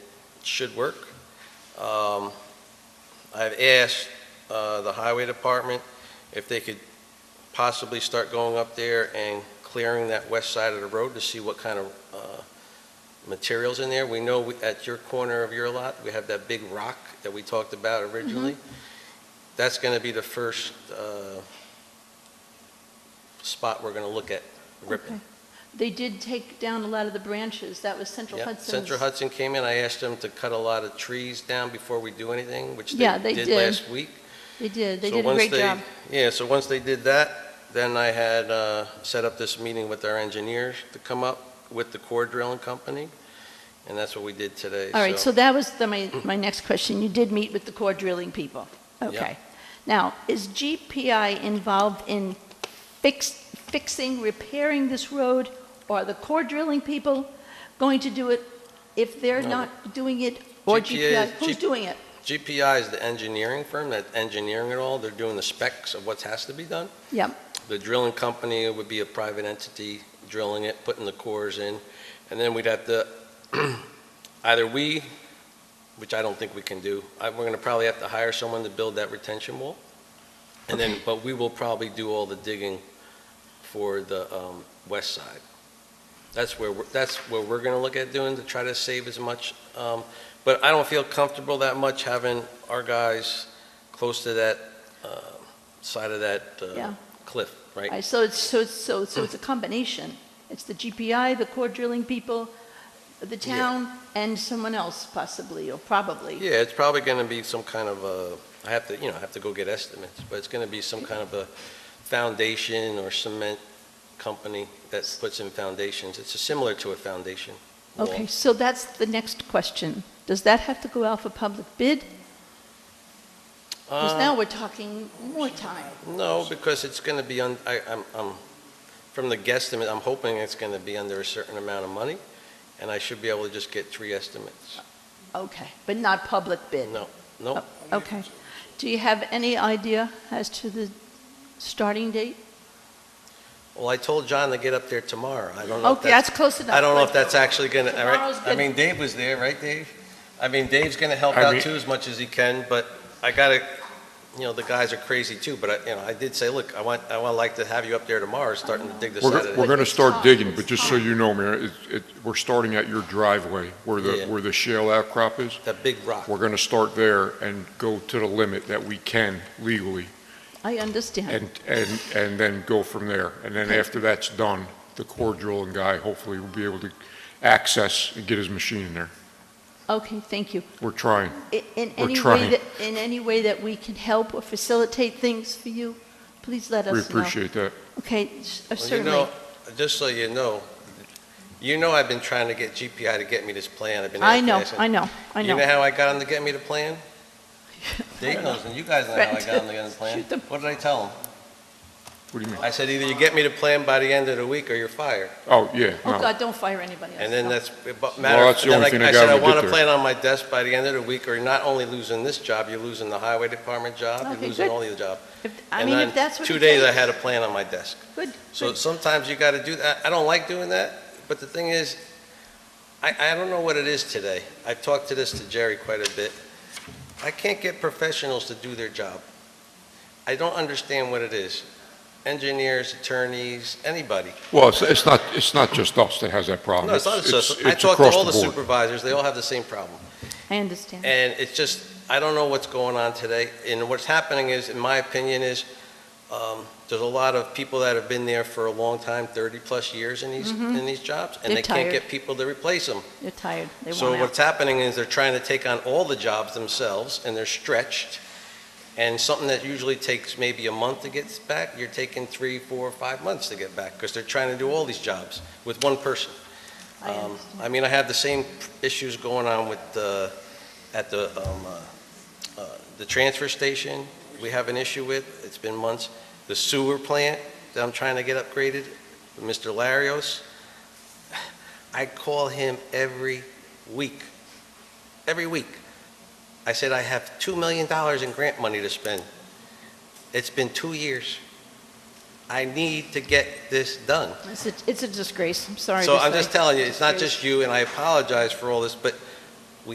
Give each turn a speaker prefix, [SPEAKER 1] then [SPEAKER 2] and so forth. [SPEAKER 1] should work. Um, I've asked uh, the highway department if they could possibly start going up there and clearing that west side of the road to see what kind of uh, materials in there. We know we- at your corner of your lot, we have that big rock that we talked about originally. That's going to be the first uh, spot we're going to look at ripping.
[SPEAKER 2] Okay. They did take down a lot of the branches. That was Central
[SPEAKER 1] Yeah,
[SPEAKER 2] Hudson's.
[SPEAKER 1] Central Hudson came in, I asked them to cut a lot of trees down before we do anything, which
[SPEAKER 2] Yeah, they
[SPEAKER 1] they did
[SPEAKER 2] did.
[SPEAKER 1] last week.
[SPEAKER 2] They did. They
[SPEAKER 1] So
[SPEAKER 2] did a
[SPEAKER 1] once
[SPEAKER 2] great
[SPEAKER 1] they-
[SPEAKER 2] job.
[SPEAKER 1] Yeah, so once they did that, then I had uh, set up this meeting with our engineers to come up with the core drilling company, and that's what we did today.
[SPEAKER 2] All right, so that was the- my, my next question. You did meet with the core drilling people? Okay. Now, is GPI involved in fix, fixing, repairing this road? Or are the core drilling people going to do it if they're
[SPEAKER 1] No.
[SPEAKER 2] not doing it? Or
[SPEAKER 1] GPI
[SPEAKER 2] GPI,
[SPEAKER 1] is-
[SPEAKER 2] who's doing it?
[SPEAKER 1] GPI is the engineering firm that's engineering it all, they're doing the specs of what has to be done.
[SPEAKER 2] Yep.
[SPEAKER 1] The drilling company would be a private entity drilling it, putting the cores in, and then we'd have to, either we, which I don't think we can do, I- we're going to probably have to hire someone to build that retention wall, and then, but we will probably do all the digging for the um, west side. That's where, we're- that's where we're going to look at doing, to try to save as much, um, but I don't feel comfortable that much having our guys close to that uh, side of that uh,
[SPEAKER 2] Yeah.
[SPEAKER 1] cliff, right?
[SPEAKER 2] All right, So it's, so it's, so so it's a combination. It's the GPI, the core drilling people, the
[SPEAKER 1] Yeah.
[SPEAKER 2] town, and someone else possibly, or probably.
[SPEAKER 1] Yeah, it's probably going to be some kind of a, I have to, you know, I have to go get estimates, but it's going to be some kind of a foundation or cement company that puts in foundations. It's similar to a foundation. wall.
[SPEAKER 2] Okay, so that's the next question. Does that have to go out for public bid? Because
[SPEAKER 1] Uh,
[SPEAKER 2] now we're talking more time.
[SPEAKER 1] No, because it's going to be, un- I- I'm, I'm- from the guesstimate, I'm hoping it's going to be under a certain amount of money, and I should be able to just get three estimates.
[SPEAKER 2] Okay, but not public bid?
[SPEAKER 1] No, nope.
[SPEAKER 2] Oh, Okay. Do you have any idea as to the starting date?
[SPEAKER 1] Well, I told John to get up there tomorrow. I don't know if
[SPEAKER 2] Okay, that's
[SPEAKER 1] that's,
[SPEAKER 2] close enough.
[SPEAKER 1] I don't know if that's actually going to, all
[SPEAKER 2] Tomorrow's
[SPEAKER 1] right? I
[SPEAKER 2] good.
[SPEAKER 1] mean, Dave was there, right, Dave? I mean, Dave's going to help
[SPEAKER 3] I
[SPEAKER 1] out
[SPEAKER 3] re-
[SPEAKER 1] too as much as he can, but I got to, you know, the guys are crazy too, but I, you know, I did say, look, I want, I want like to have you up there tomorrow, starting to dig this out
[SPEAKER 3] We're,
[SPEAKER 1] of
[SPEAKER 3] we're
[SPEAKER 1] the
[SPEAKER 3] gonna
[SPEAKER 2] It's
[SPEAKER 3] start
[SPEAKER 2] hot,
[SPEAKER 3] digging,
[SPEAKER 2] it's
[SPEAKER 3] but just so
[SPEAKER 2] hot.
[SPEAKER 3] you know, Mayor, it, it, we're starting at your driveway where
[SPEAKER 1] Yeah.
[SPEAKER 3] the, where the shale outcrop is.
[SPEAKER 1] that big rock.
[SPEAKER 3] We're gonna start there and go to the limit that we can legally
[SPEAKER 2] I understand.
[SPEAKER 3] and, and, and then go from there. And then after that's done, the core drilling guy hopefully will be able to access and get his machine in there.
[SPEAKER 2] Okay, thank you.
[SPEAKER 3] We're trying.
[SPEAKER 2] I- In
[SPEAKER 3] We're
[SPEAKER 2] any way
[SPEAKER 3] trying.
[SPEAKER 2] that, in any way that we can help or facilitate things for you, please let us know.
[SPEAKER 3] We appreciate that.
[SPEAKER 2] Okay, s- uh,
[SPEAKER 1] Well, you
[SPEAKER 2] certainly.
[SPEAKER 1] know, Just so you know, you know I've been trying to get GPI to get me this plan. I've been.
[SPEAKER 2] I know,
[SPEAKER 1] asking-
[SPEAKER 2] I know, I
[SPEAKER 1] You know
[SPEAKER 2] know.
[SPEAKER 1] how I got him to get me the plan? Dave knows, and you guys know how I
[SPEAKER 2] Right.
[SPEAKER 1] got him to get him the plan.
[SPEAKER 2] Shoot them.
[SPEAKER 1] What did I tell him?
[SPEAKER 3] What do you mean?
[SPEAKER 1] I said, either you get me the plan by the end of the week or you're fired.
[SPEAKER 3] Oh, yeah,
[SPEAKER 2] Oh,
[SPEAKER 3] no.
[SPEAKER 2] God, don't fire anybody else.
[SPEAKER 1] And then
[SPEAKER 2] no.
[SPEAKER 1] that's, but matter,
[SPEAKER 3] that's the
[SPEAKER 1] then
[SPEAKER 3] only
[SPEAKER 1] I
[SPEAKER 3] thing that
[SPEAKER 1] I
[SPEAKER 3] got
[SPEAKER 1] said,
[SPEAKER 3] him
[SPEAKER 1] I
[SPEAKER 3] to
[SPEAKER 1] want a
[SPEAKER 3] get
[SPEAKER 1] plan on my desk by the end of the week, or you're not only losing this job, you're losing the highway department job,
[SPEAKER 2] Okay,
[SPEAKER 1] you're losing
[SPEAKER 2] good.
[SPEAKER 1] all your job.
[SPEAKER 2] If- I
[SPEAKER 1] And
[SPEAKER 2] mean,
[SPEAKER 1] then
[SPEAKER 2] if that's what it
[SPEAKER 1] Two days I
[SPEAKER 2] takes.
[SPEAKER 1] had a plan on my desk.
[SPEAKER 2] Good,
[SPEAKER 1] So
[SPEAKER 2] good.
[SPEAKER 1] sometimes you got to do that. I don't like doing that, but the thing is, I, I don't know what it is today. I've talked to this to Jerry quite a bit. I can't get professionals to do their job. I don't understand what it is. Engineers, attorneys, anybody.
[SPEAKER 3] Well, it's, it's not, it's not just us that has that problem.
[SPEAKER 1] No, it's not
[SPEAKER 3] It's-
[SPEAKER 1] just,
[SPEAKER 3] it's-
[SPEAKER 1] I
[SPEAKER 3] it's
[SPEAKER 1] talked to
[SPEAKER 3] across
[SPEAKER 1] all the
[SPEAKER 3] board.
[SPEAKER 1] supervisors, they all have the same problem.
[SPEAKER 2] I understand.
[SPEAKER 1] And it's just, I don't know what's going on today. And what's happening is, in my opinion, is um, there's a lot of people that have been there for a long time, 30-plus years in these, in these jobs, and
[SPEAKER 2] Mm-hmm. They're
[SPEAKER 1] they can't
[SPEAKER 2] tired.
[SPEAKER 1] get people to replace them.
[SPEAKER 2] They're tired, they
[SPEAKER 1] So
[SPEAKER 2] want out.
[SPEAKER 1] what's happening is they're trying to take on all the jobs themselves, and they're stretched. And something that usually takes maybe a month to get back, you're taking three, four, five months to get back, because they're trying to do all these jobs with one person.
[SPEAKER 2] I
[SPEAKER 1] Um,
[SPEAKER 2] understand.
[SPEAKER 1] I mean, I have the same issues going on with, uh, at the, um, uh, uh, the transfer station, we have an issue with, it's been months. The sewer plant that I'm trying to get upgraded, Mr. Larios, I call him every week, every week. I said, I have $2 million in grant money to spend. It's been two years. I need to get this done.
[SPEAKER 2] It's a, it's a disgrace, I'm sorry to
[SPEAKER 1] So I'm
[SPEAKER 2] say.
[SPEAKER 1] just telling you, it's not just you, and I apologize for all this, but